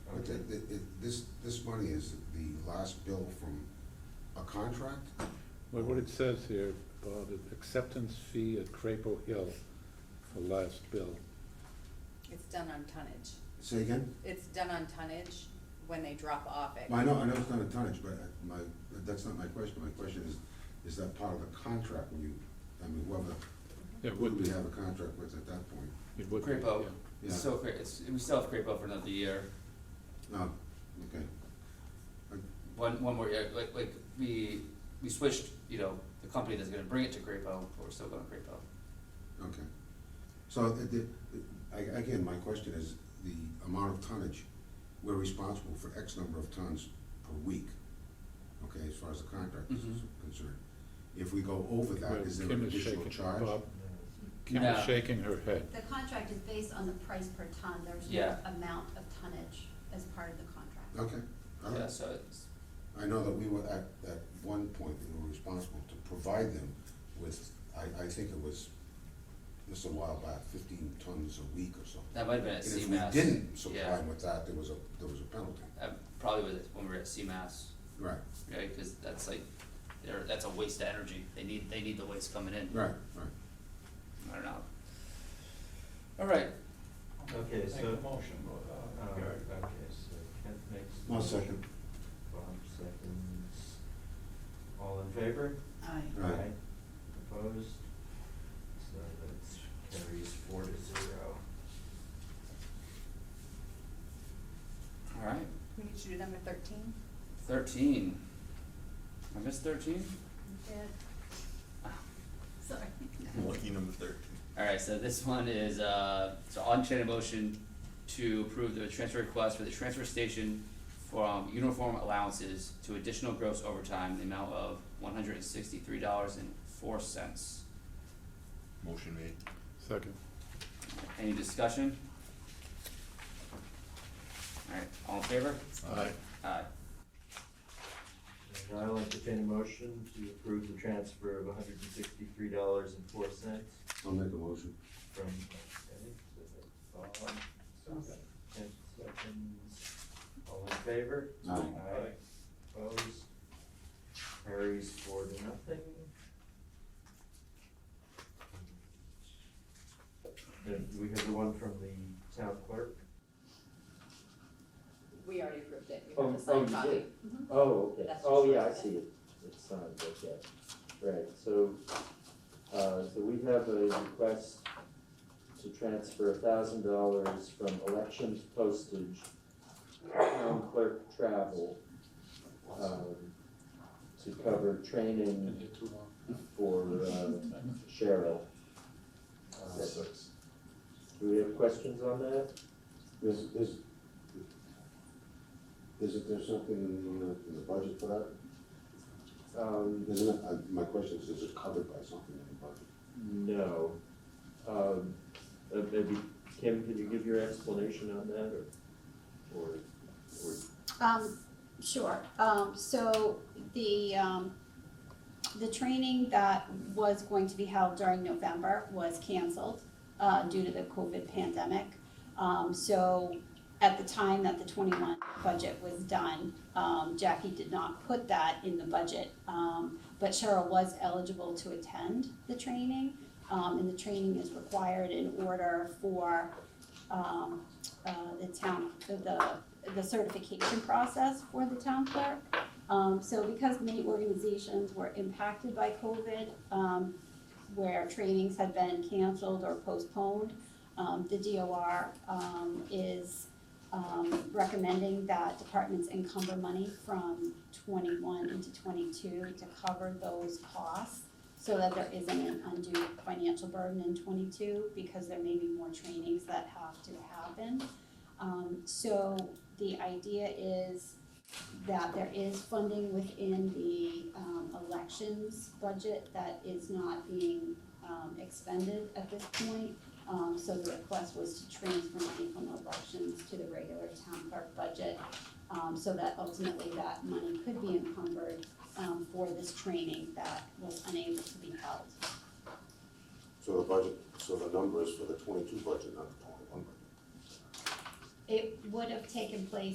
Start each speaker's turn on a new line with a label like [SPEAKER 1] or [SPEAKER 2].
[SPEAKER 1] But the, the, it- this, this money is the last bill from a contract?
[SPEAKER 2] Well, what it says here, Bob, is acceptance fee at Crapo Hill, the last bill.
[SPEAKER 3] It's done on tonnage.
[SPEAKER 1] Say again?
[SPEAKER 3] It's done on tonnage when they drop off it.
[SPEAKER 1] Well, I know, I know it's not a tonnage, but I- my, that's not my question. My question is, is that part of the contract when you, I mean, whoever,
[SPEAKER 2] It
[SPEAKER 1] who do we have a contract with at that point?
[SPEAKER 2] It would be,
[SPEAKER 4] Crapo.
[SPEAKER 2] yeah.
[SPEAKER 1] Yeah.
[SPEAKER 4] It's still, cra- it's, we still have Crapo for another year,
[SPEAKER 1] No, okay.
[SPEAKER 4] one, one more year, like, like, we, we switched, you know, the company that's gonna bring it to Crapo, but we're still going Crapo.
[SPEAKER 1] Okay. So, the- the- I- again, my question is, the amount of tonnage, we're responsible for X number of tons per week, okay, as far as the contract is
[SPEAKER 4] Mhm.
[SPEAKER 1] concerned. If we go over that,
[SPEAKER 2] Mm-hmm. Well,
[SPEAKER 1] is there
[SPEAKER 2] Kim
[SPEAKER 1] an
[SPEAKER 2] is
[SPEAKER 1] additional
[SPEAKER 2] shaking-
[SPEAKER 1] charge?
[SPEAKER 2] Bob, Kim
[SPEAKER 4] No.
[SPEAKER 2] is shaking her head.
[SPEAKER 5] The contract is based on the price per ton, there's no
[SPEAKER 4] Yeah.
[SPEAKER 5] amount of tonnage as part of the contract.
[SPEAKER 1] Okay, all
[SPEAKER 4] Yeah,
[SPEAKER 1] right.
[SPEAKER 4] so it's,
[SPEAKER 1] I know that we were at, at one point, we were responsible to provide them with, I, I think it was just a while back, fifteen tons a week or something.
[SPEAKER 4] that might have been at
[SPEAKER 1] And if
[SPEAKER 4] CMass.
[SPEAKER 1] we didn't supply
[SPEAKER 4] Yeah,
[SPEAKER 1] them with that, there was a, there was a penalty.
[SPEAKER 4] that probably was when we were at CMass,
[SPEAKER 1] Right,
[SPEAKER 4] right, cause that's like, they're, that's a waste of energy, they need, they need the waste coming in,
[SPEAKER 1] right, right.
[SPEAKER 4] I don't know. Alright,
[SPEAKER 6] Okay,
[SPEAKER 7] Make
[SPEAKER 6] so.
[SPEAKER 7] a motion, uh,
[SPEAKER 6] Uh,
[SPEAKER 7] Gary.
[SPEAKER 6] Okay, so Kent makes. the
[SPEAKER 1] One
[SPEAKER 6] motion,
[SPEAKER 1] second.
[SPEAKER 6] Bob seconds. All in favor?
[SPEAKER 3] Aye.
[SPEAKER 1] Aye.
[SPEAKER 6] Opposed? So that carries four to zero.
[SPEAKER 4] alright,
[SPEAKER 3] We need to do number thirteen?
[SPEAKER 4] thirteen. I missed thirteen?
[SPEAKER 5] Sorry.
[SPEAKER 8] Lucky number thirteen.
[SPEAKER 4] Alright, so this one is, uh, so I'll entertain a motion to approve the transfer request for the transfer station from uniform allowances to additional gross overtime in the amount of one hundred and sixty-three dollars and four cents.
[SPEAKER 8] Motion made.
[SPEAKER 2] Second.
[SPEAKER 4] Any discussion? Alright, all in favor?
[SPEAKER 8] Aye.
[SPEAKER 4] Aye.
[SPEAKER 6] And I'll entertain a motion to approve the transfer of hundred and sixty-three dollars and four cents
[SPEAKER 1] I'll make a motion.
[SPEAKER 6] from, okay, so that's Bob. Kent seconds. All in favor?
[SPEAKER 1] Aye.
[SPEAKER 6] Aye. Opposed? Carries four to nothing. Then we have the one from the town clerk.
[SPEAKER 3] We already approved it. You
[SPEAKER 6] Oh,
[SPEAKER 3] have a signed
[SPEAKER 6] oh, you
[SPEAKER 3] copy.
[SPEAKER 6] did? Oh, okay,
[SPEAKER 3] That's
[SPEAKER 6] oh,
[SPEAKER 3] just
[SPEAKER 6] yeah, I
[SPEAKER 3] like
[SPEAKER 6] see it, it's signed, okay, right, so, uh, so we have a request to transfer a thousand dollars from elections postage, town clerk travel, um, to cover training for, uh, Cheryl. Uh, Do we have questions on that?
[SPEAKER 1] There's, there's, isn't there something in the, in the budget for that?
[SPEAKER 6] Um,
[SPEAKER 1] Isn't it, I- my question is, is it covered by something in the budget?
[SPEAKER 6] No. Um, uh, maybe, Kim, can you give your explanation on that, or, or, or
[SPEAKER 9] Um, sure, um, so the, um, the training that was going to be held during November was canceled, uh, due to the COVID pandemic. Um, so at the time that the twenty-one budget was done, um, Jackie did not put that in the budget. Um, but Cheryl was eligible to attend the training, um, and the training is required in order for, um, uh, the town, the- the the certification process for the town clerk. Um, so because many organizations were impacted by COVID, um, where trainings had been canceled or postponed, um, the DOR, um, is, um, recommending that departments encumber money from twenty-one into twenty-two to cover those costs so that there isn't an undue financial burden in twenty-two because there may be more trainings that have to happen. Um, so the idea is that there is funding within the, um, elections budget that is not being, um, expended at this point. Um, so the request was to transfer money from elections to the regular town clerk budget, um, so that ultimately that money could be encumbered, um, for this training that was unable to be held.
[SPEAKER 1] So the budget, so the number is for the twenty-two budget, not the twenty-one budget?
[SPEAKER 9] It would have taken place